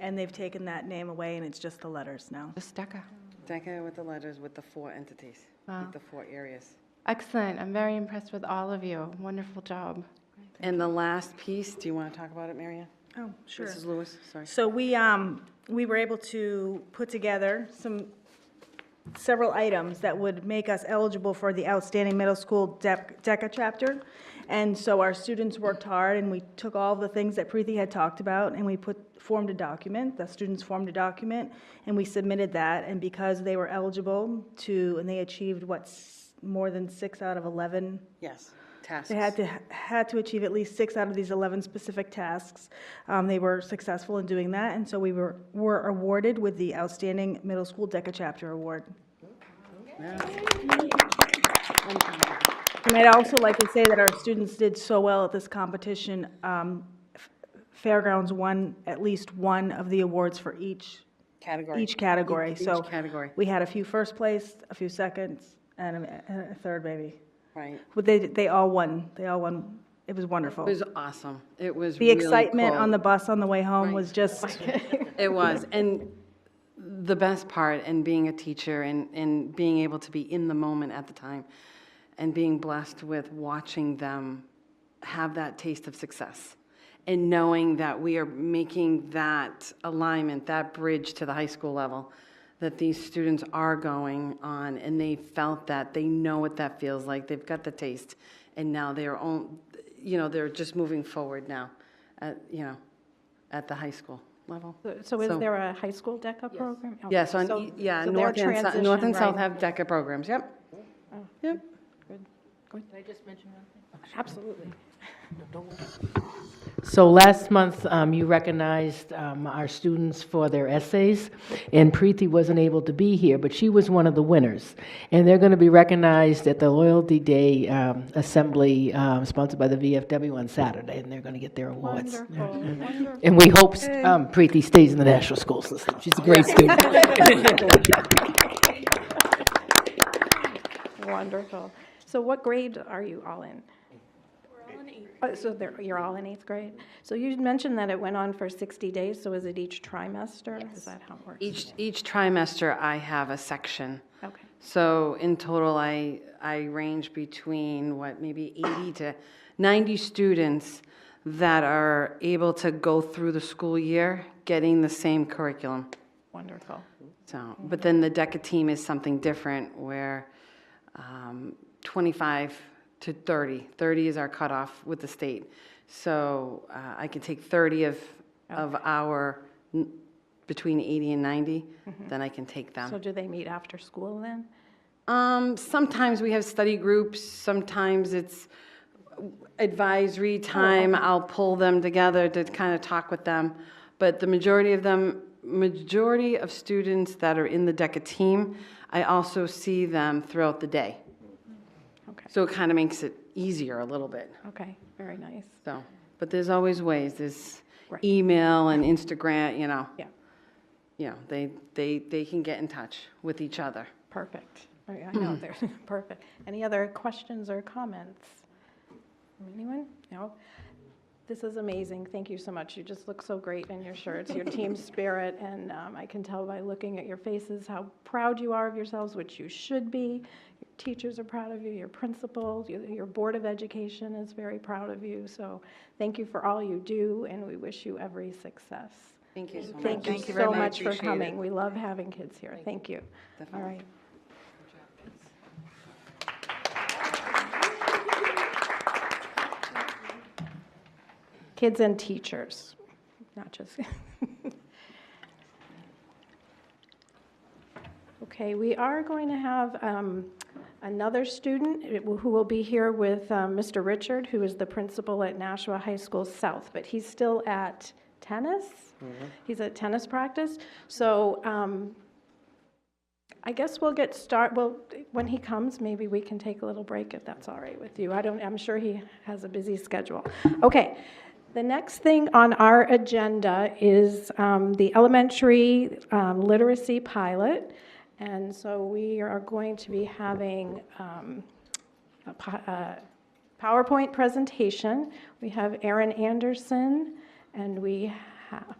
And they've taken that name away, and it's just the letters now. Just DECA. DECA with the letters, with the four entities, Wow. with the four areas. Excellent. I'm very impressed with all of you. Wonderful job. And the last piece, do you want to talk about it, Marianne? Oh, sure. Mrs. Lewis, sorry. So we, um, we were able to put together some, several items that would make us eligible for the outstanding middle school Dec- DECA chapter. And so our students worked hard and we took all the things that Preeti had talked about and we put, formed a document, the students formed a document, and we submitted that. And because they were eligible to, and they achieved what, s- more than six out of 11 Yes, tasks. they had to, had to achieve at least six out of these 11 specific tasks. Um, They were successful in doing that, and so we were, were awarded with the Outstanding Middle School DECA Chapter Award. And I'd also like to say that our students did so well at this competition. um, F- Fairgrounds won at least one of the awards for each, Category. each category, Each- so. Each category, We had a few first place, a few seconds, and a- and a third maybe. right. Well, They, they all won, they all won, it was wonderful. It was awesome. It was The really excitement cool. on the bus on the way home was just, It was, and the best part, and being a teacher, and, and being able to be in the moment at the time, and being blessed with watching them have that taste of success, and knowing that we are making that alignment, that bridge to the high school level, that these students are going on, and they felt that, they know what that feels like, they've got the taste, and now they're on, you know, they're just moving forward now, at, you know, at the high school level. So is there a high school DECA program? Okay, Yes, on, so- e- yeah, so their north and, sou- north transition, and south right. have DECA programs, yep. Yep, Absolutely. So last month, um, you recognized um, our students for their essays, and Preeti wasn't able to be here, but she was one of the winners. And they're going to be recognized at the Loyalty Day um, Assembly um, sponsored by the VFW on Saturday, and they're going to get their awards. And we hope um, Preeti stays in the national school system. She's a great student. Wonderful. So what grade are you all in? We're all in eighth. So they're, you're all in eighth grade? So you mentioned that it went on for 60 days, so is it each trimester? Is that how it works? each, each trimester I have a section. Okay. So in total, I, I range between, what, maybe 80 to 90 students that are able to go through the school year getting the same curriculum. Wonderful. So, but then the DECA team is something different where um, 25 to 30, 30 is our cutoff with the state. So uh, I can take 30 of, of our, n- between 80 and 90, then I can take So them. do they meet after school then? Um, Sometimes we have study groups, sometimes it's advisory Oh, time. I'll pull them together to kind of talk with them. But the majority of them, majority of students that are in the DECA team, I also see them throughout the day. Okay. So it kind of makes it easier a little bit, Okay, very nice. so. But there's always ways, there's Right. email and Instagram, you know. Yeah, You know, they, they, they can get in touch with each other. perfect. Right, I know, they're, perfect. Any other questions or comments? Anyone? No? This is amazing. Thank you so much. You just look so great in your shirts, your team spirit, and um, I can tell by looking at your faces how proud you are of yourselves, which you should be. Your teachers are proud of you, your principals, your, your Board of Education is very proud of you. So thank you for all you do, and we wish you every success. Thank you so much. Thank you so much for coming. We love having kids here. Thank you. All right. Kids and teachers, not just. Okay, we are going to have um, another student who will be here with um, Mr. Richard, who is the principal at Nashua High School South, but he's still at tennis. He's at tennis practice. So um, I guess we'll get start, well, when he comes, maybe we can take a little break if that's all right with you. I don't, I'm sure he has a busy schedule. Okay. The next thing on our agenda is um, the elementary um, literacy pilot. And so we are going to be having um, a uh, po- a PowerPoint presentation. We have Erin Anderson, and we have,